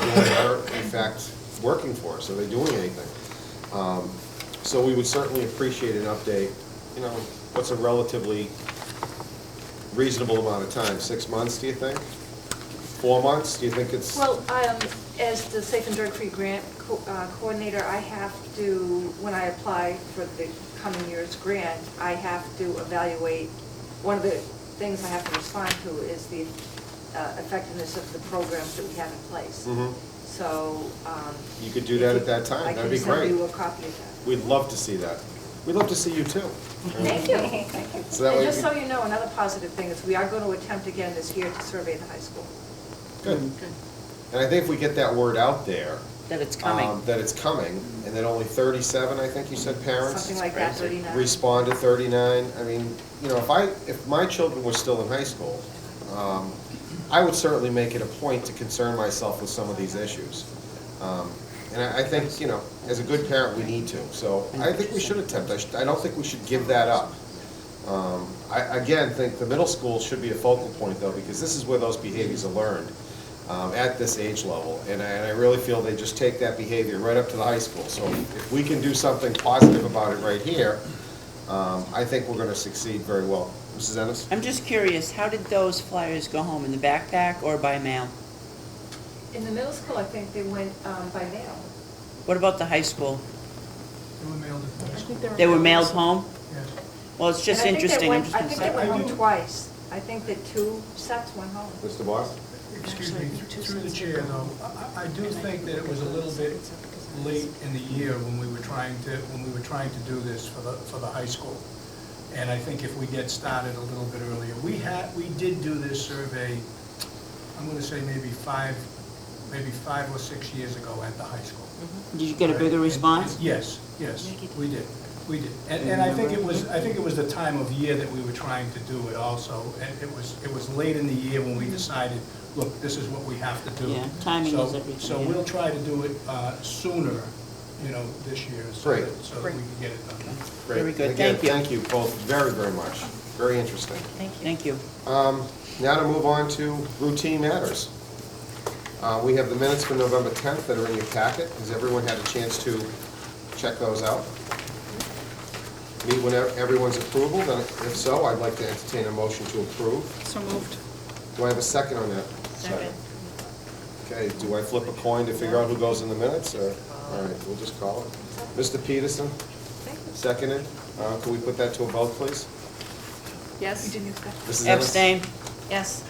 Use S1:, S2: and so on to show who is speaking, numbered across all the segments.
S1: that are in fact working for us, are they doing anything? Um, So we would certainly appreciate an update, you know, what's a relatively reasonable amount of time, six months, do you think? Four months, do you think it's?
S2: Well, um, as the Safe and Drug-Free Grant co- uh, Coordinator, I have to, when I apply for the coming year's grant, I have to evaluate, one of the things I have to respond to is the uh, effectiveness of the programs that we have in place.
S1: Mhm.
S2: So. um,
S1: You could do that at that time.
S2: I
S1: That'd be
S2: can
S1: great.
S2: send you a copy of that.
S1: We'd love to see that. We'd love to see you too.
S2: Thank you, thank you.
S1: So that
S2: And
S1: way
S2: just
S1: we-
S2: so you know, another positive thing is we are going to attempt again this year to survey the high school.
S1: Good. And I think if we get that word out there.
S3: That it's coming.
S1: um, That it's coming, and that only thirty-seven, I think you said, parents
S2: Something like that,
S3: crazy.
S2: 39.
S1: respond to thirty-nine. I mean, you know, if I, if my children were still in high school, um, I would certainly make it a point to concern myself with some of these issues. Um, And I, I think, you know, as a good parent, we need to, so I think we should attempt, I should, I don't think we should give that up. Um, I, again, think the middle school should be a focal point though, because this is where those behaviors are learned, um, at this age level. And I, and I really feel they just take that behavior right up to the high school. So if we can do something positive about it right here, um, I think we're gonna succeed very well. Mrs. Ennis?
S3: I'm just curious, how did those flyers go home, in the backpack or by mail?
S2: In the middle school, I think they went um, by mail.
S3: What about the high school?
S4: They were mailed at the high school.
S3: They were mailed home?
S4: Yes.
S3: Well, it's just
S2: And I think they
S3: interesting, I'm
S2: went-
S3: just gonna
S2: I
S3: say.
S2: think they went
S4: I do.
S2: home twice. I think that two sets went home.
S1: Mr. Boss?
S4: Excuse me, through the chair though, I, I do think that it was a little bit late in the year when we were trying to, when we were trying to do this for the, for the high school. And I think if we get started a little bit earlier, we had, we did do this survey, I'm gonna say maybe five, maybe five or six years ago at the high school.
S3: Did you get a bigger response?
S4: Yes, yes, we did, we did. And, and I think it was, I think it was the time of year that we were trying to do it also. And it was, it was late in the year when we decided, look, this is what we have to do.
S3: Mm-hmm. Yeah, timing
S4: So-
S3: is everything,
S4: So
S3: yeah.
S4: we'll try to do it uh, sooner, you know, this year, so
S1: Great.
S4: that, so that we can get it done.
S1: Great.
S3: Very good.
S1: Again,
S3: Thank you.
S1: Thank you both very, very much. Very interesting.
S3: Thank you.
S1: Um, Now to move on to routine matters. Uh, We have the minutes for November 10th that are in your packet. Has everyone had a chance to check those out? Meet when ev- everyone's approval, then if so, I'd like to entertain a motion to approve.
S5: So moved.
S1: Do I have a second on that? Second. Okay, do I flip a coin to figure out who goes in the minutes, or, all right, we'll just call it. Mr. Peterson, seconded. Uh, Can we put that to a vote, please?
S2: You
S5: Yes?
S2: didn't expect that?
S1: Mrs. Ennis?
S3: Abstain.
S5: Yes.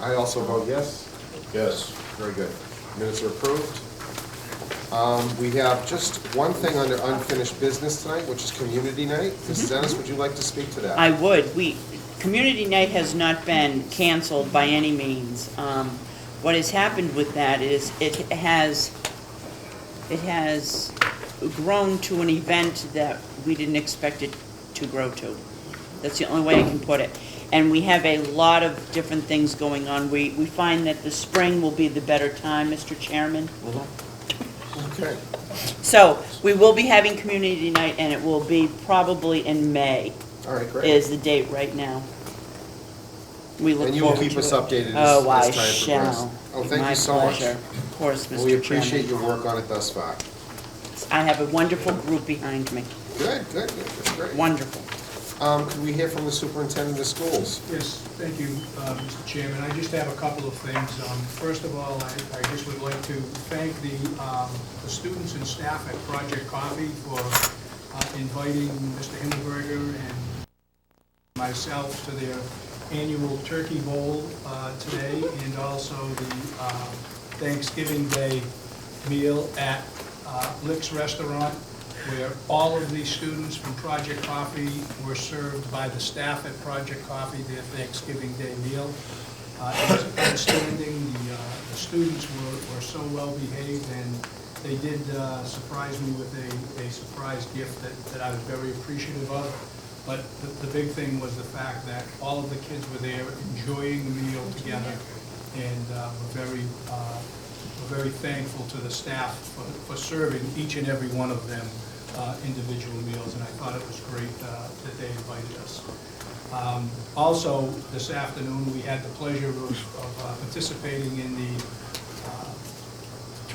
S1: I also vote yes. Yes. Very good. Minutes are approved. Um, We have just one thing under unfinished business tonight, which is community night. Mrs. Ennis, would you like to speak to that?
S3: Mm-hmm. I would, we, community night has not been canceled by any means. Um, What has happened with that is it has, it has grown to an event that we didn't expect it to grow to. That's the only way I can put it. And we have a lot of different things going on. We, we find that the spring will be the better time, Mr. Chairman.
S1: Okay.
S3: So, we will be having community night, and it will be probably in May
S1: All right, great.
S3: is the date right now. We look
S1: And you will
S3: forward to it.
S1: keep us updated as- as
S3: Oh, I
S1: time progresses.
S3: shall.
S1: Oh,
S3: Be
S1: thank
S3: my
S1: you so much.
S3: pleasure. Of course,
S1: Well, We
S3: Mr.
S1: appreciate
S3: Chairman.
S1: your work on it thus far.
S3: I have a wonderful group behind me,
S1: Good, good, good, that's great.
S3: wonderful.
S1: Um, Can we hear from the superintendent of schools?
S4: Yes, thank you, uh, Mr. Chairman. I just have a couple of things. Um, First of all, I I just would like to thank the um, the students and staff at Project Coffee for uh, inviting Mr. Himmelberger and myself to their annual turkey bowl uh, today, and also the um, Thanksgiving Day meal at uh, Lick's Restaurant, where all of the students from Project Coffee were served by the staff at Project Coffee their Thanksgiving Day meal. Uh, It was outstanding, the uh, the students were were so well-behaved, and they did uh, surprise me with a a surprise gift that that I was very appreciative of. But the, the big thing was the fact that all of the kids were there enjoying the meal together, and uh, we're very, uh, we're very thankful to the staff for, for serving each and every one of them uh, individual meals, and I thought it was great uh, that they invited us. Um, Also, this afternoon, we had the pleasure of of, uh, participating in the